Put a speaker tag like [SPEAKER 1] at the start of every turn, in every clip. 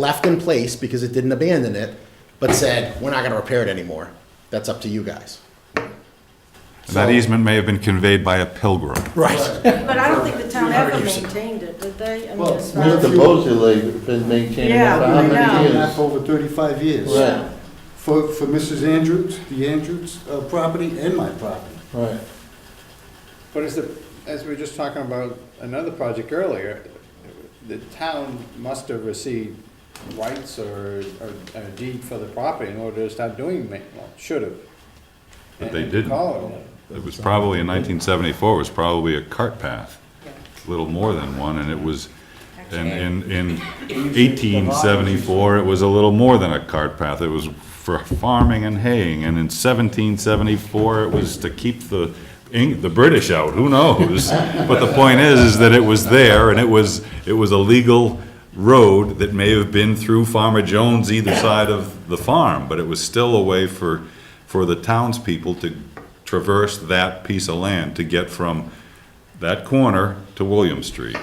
[SPEAKER 1] left in place because it didn't abandon it, but said, we're not gonna repair it anymore. That's up to you guys.
[SPEAKER 2] And That easement may have been conveyed by a pilgrim.
[SPEAKER 1] Right.
[SPEAKER 3] But I don't think the town ever maintained it, did they? I mean,
[SPEAKER 4] Well,
[SPEAKER 3] as far as-
[SPEAKER 5] Supposedly, it's been maintaining it
[SPEAKER 3] Yeah,
[SPEAKER 5] for how
[SPEAKER 3] I know.
[SPEAKER 5] many
[SPEAKER 4] Been
[SPEAKER 5] years?
[SPEAKER 4] that for over 35 years.
[SPEAKER 5] Right,
[SPEAKER 4] For, for Mrs. Andrews, the Andrews uh, property and my property.
[SPEAKER 5] right.
[SPEAKER 6] But as the, as we were just talking about another project earlier, the town must have received rights or, or a deed for the property in order to start doing maintenance, should have.
[SPEAKER 2] But they
[SPEAKER 6] And
[SPEAKER 2] didn't.
[SPEAKER 6] call it.
[SPEAKER 2] It was probably, in 1974, it was probably a cart path, little more than one, and it was, in, in, in 1874, it was a little more than a cart path. It was for farming and haying, and in 1774, it was to keep the, Eng- the British out, who knows? But the point is, is that it was there, and it was, it was a legal road that may have been through Farmer Jones either side of the farm, but it was still a way for, for the townspeople to traverse that piece of land to get from that corner to William Street.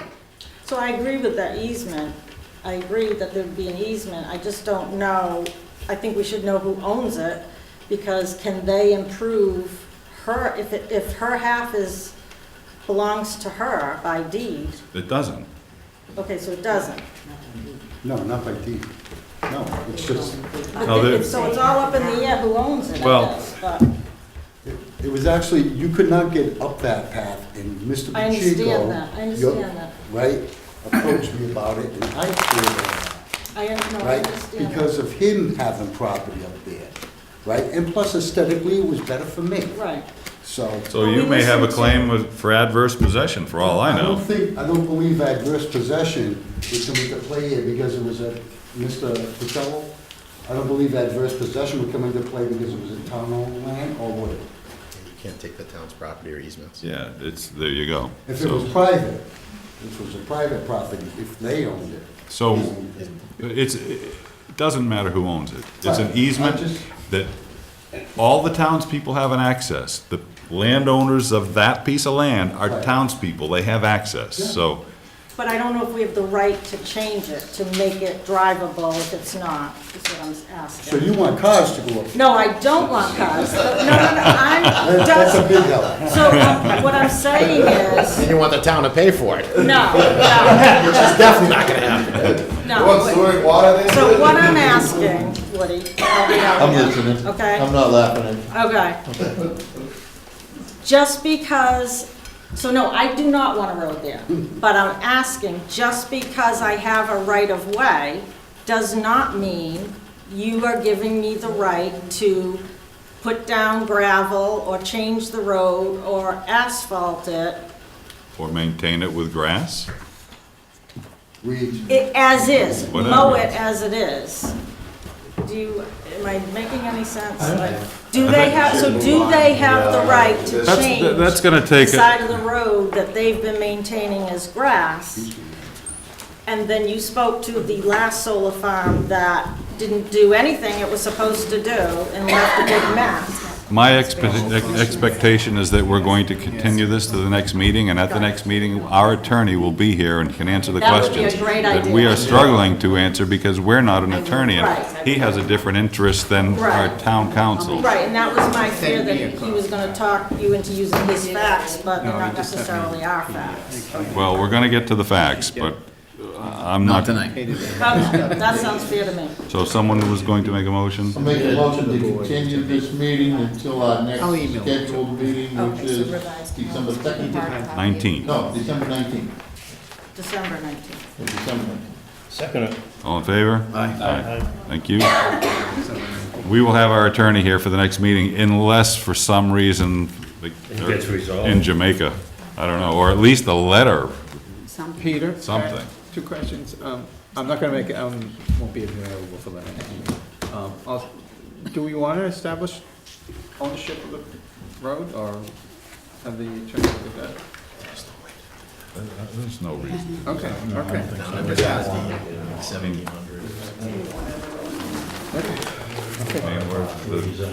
[SPEAKER 3] So I agree with that easement. I agree that there'd be an easement. I just don't know, I think we should know who owns it, because can they improve her, if, it- if her half is, belongs to her by deed?
[SPEAKER 2] It doesn't.
[SPEAKER 3] Okay, so it doesn't.
[SPEAKER 4] No, not by deed. No, it's just,
[SPEAKER 3] But
[SPEAKER 2] No,
[SPEAKER 3] then-
[SPEAKER 2] they-
[SPEAKER 3] So it's all up in the air who owns it, I
[SPEAKER 2] Well-
[SPEAKER 3] guess, but
[SPEAKER 4] it it was actually, you could not get up that path and Mr. Pacheco.
[SPEAKER 3] I understand that. I
[SPEAKER 4] your-
[SPEAKER 3] understand that.
[SPEAKER 4] Right, approached me about it and I cleared it out.
[SPEAKER 3] I don't know, I understand.
[SPEAKER 4] right?
[SPEAKER 3] that.
[SPEAKER 4] Because of him having property up there, right? And plus aesthetically, it was better for me.
[SPEAKER 3] Right.
[SPEAKER 4] So.
[SPEAKER 2] So you may have a claim with- for adverse possession, for all I
[SPEAKER 4] don't
[SPEAKER 2] know.
[SPEAKER 4] think, I don't believe adverse possession was coming to play here because it was a, Mr. Patel, I don't believe adverse possession would come into play because it was a town-owned land or would it?
[SPEAKER 1] You can't take the town's property or easements.
[SPEAKER 2] Yeah, it's, there you go.
[SPEAKER 4] If it
[SPEAKER 2] So-
[SPEAKER 4] was private, if it was a private property, if they owned it.
[SPEAKER 2] So it's, it doesn't matter who owns it. It's an
[SPEAKER 4] Right. I
[SPEAKER 2] easement
[SPEAKER 4] just-
[SPEAKER 2] that all the townspeople have an access. The landowners of that piece of land are
[SPEAKER 4] Right.
[SPEAKER 2] townspeople, they have access, so.
[SPEAKER 3] But I don't know if we have the right to change it, to make it drivable if it's not, is what I'm
[SPEAKER 4] So
[SPEAKER 3] asking.
[SPEAKER 4] you want cars to go up?
[SPEAKER 3] No, I don't want cars, but no, no, no, I'm,
[SPEAKER 4] That's a
[SPEAKER 3] just-
[SPEAKER 4] big help.
[SPEAKER 3] so um, what I'm saying is,
[SPEAKER 1] And you want the town to pay for it,
[SPEAKER 3] no, no,
[SPEAKER 1] which is definitely not gonna happen.
[SPEAKER 3] no.
[SPEAKER 5] water there?
[SPEAKER 3] So what I'm asking, Woody, help me out
[SPEAKER 5] I'm
[SPEAKER 3] here.
[SPEAKER 5] listening.
[SPEAKER 3] Okay.
[SPEAKER 5] I'm not laughing at you.
[SPEAKER 3] Okay. Just because, so no, I do not want a road there, but I'm asking, just because I have a right-of-way does not mean you are giving me the right to put down gravel or change the road or asphalt it
[SPEAKER 2] Or maintain it with grass?
[SPEAKER 4] Reed.
[SPEAKER 3] It, as is, mow
[SPEAKER 2] Whatever.
[SPEAKER 3] it as it is. Do you, am I making any sense? Like, Do they have, so do they have the right to
[SPEAKER 2] That's-
[SPEAKER 3] change?
[SPEAKER 2] that's gonna take
[SPEAKER 3] The
[SPEAKER 2] a-
[SPEAKER 3] side of the road that they've been maintaining as grass? And then you spoke to the last solar farm that didn't do anything it was supposed to do and left a big mess.
[SPEAKER 2] My expe- ex- expectation is that we're going to continue this to the next meeting, and at the next meeting, our attorney will be here and can answer the
[SPEAKER 3] That would be a
[SPEAKER 2] questions
[SPEAKER 3] great
[SPEAKER 2] that we
[SPEAKER 3] idea.
[SPEAKER 2] are struggling to answer because we're not an attorney,
[SPEAKER 3] Right.
[SPEAKER 2] and he has a different interest than our
[SPEAKER 3] Right.
[SPEAKER 2] town council.
[SPEAKER 3] Right, and that was my fear that he was gonna talk you into using his facts, but they're not necessarily our facts.
[SPEAKER 2] Well, we're gonna get to the facts, but uh, I'm not.
[SPEAKER 3] Okay, That sounds fair to me.
[SPEAKER 2] So someone was going to make a motion?
[SPEAKER 5] I'll make a motion to continue this meeting until our next scheduled meeting, which
[SPEAKER 3] Okay, so
[SPEAKER 5] is
[SPEAKER 3] revised
[SPEAKER 5] December
[SPEAKER 3] policy.
[SPEAKER 5] second.
[SPEAKER 2] Nineteen.
[SPEAKER 5] No, December nineteenth,
[SPEAKER 3] December 19th.
[SPEAKER 5] December nineteenth.
[SPEAKER 2] All in favor? Aye. Thank you. We will have our attorney here for the next meeting unless for some reason. It
[SPEAKER 7] gets resolved.
[SPEAKER 2] In Jamaica, I don't know, or at least a letter,
[SPEAKER 7] Peter?
[SPEAKER 2] Something.
[SPEAKER 7] Two questions. Um, I'm not gonna make, it. um, won't be available for the next meeting. Um, I'll- Do we wanna establish ownership of the road, or have the attorney look at that?
[SPEAKER 2] there's no reason.
[SPEAKER 7] Okay, okay.
[SPEAKER 2] I mean, we're- the-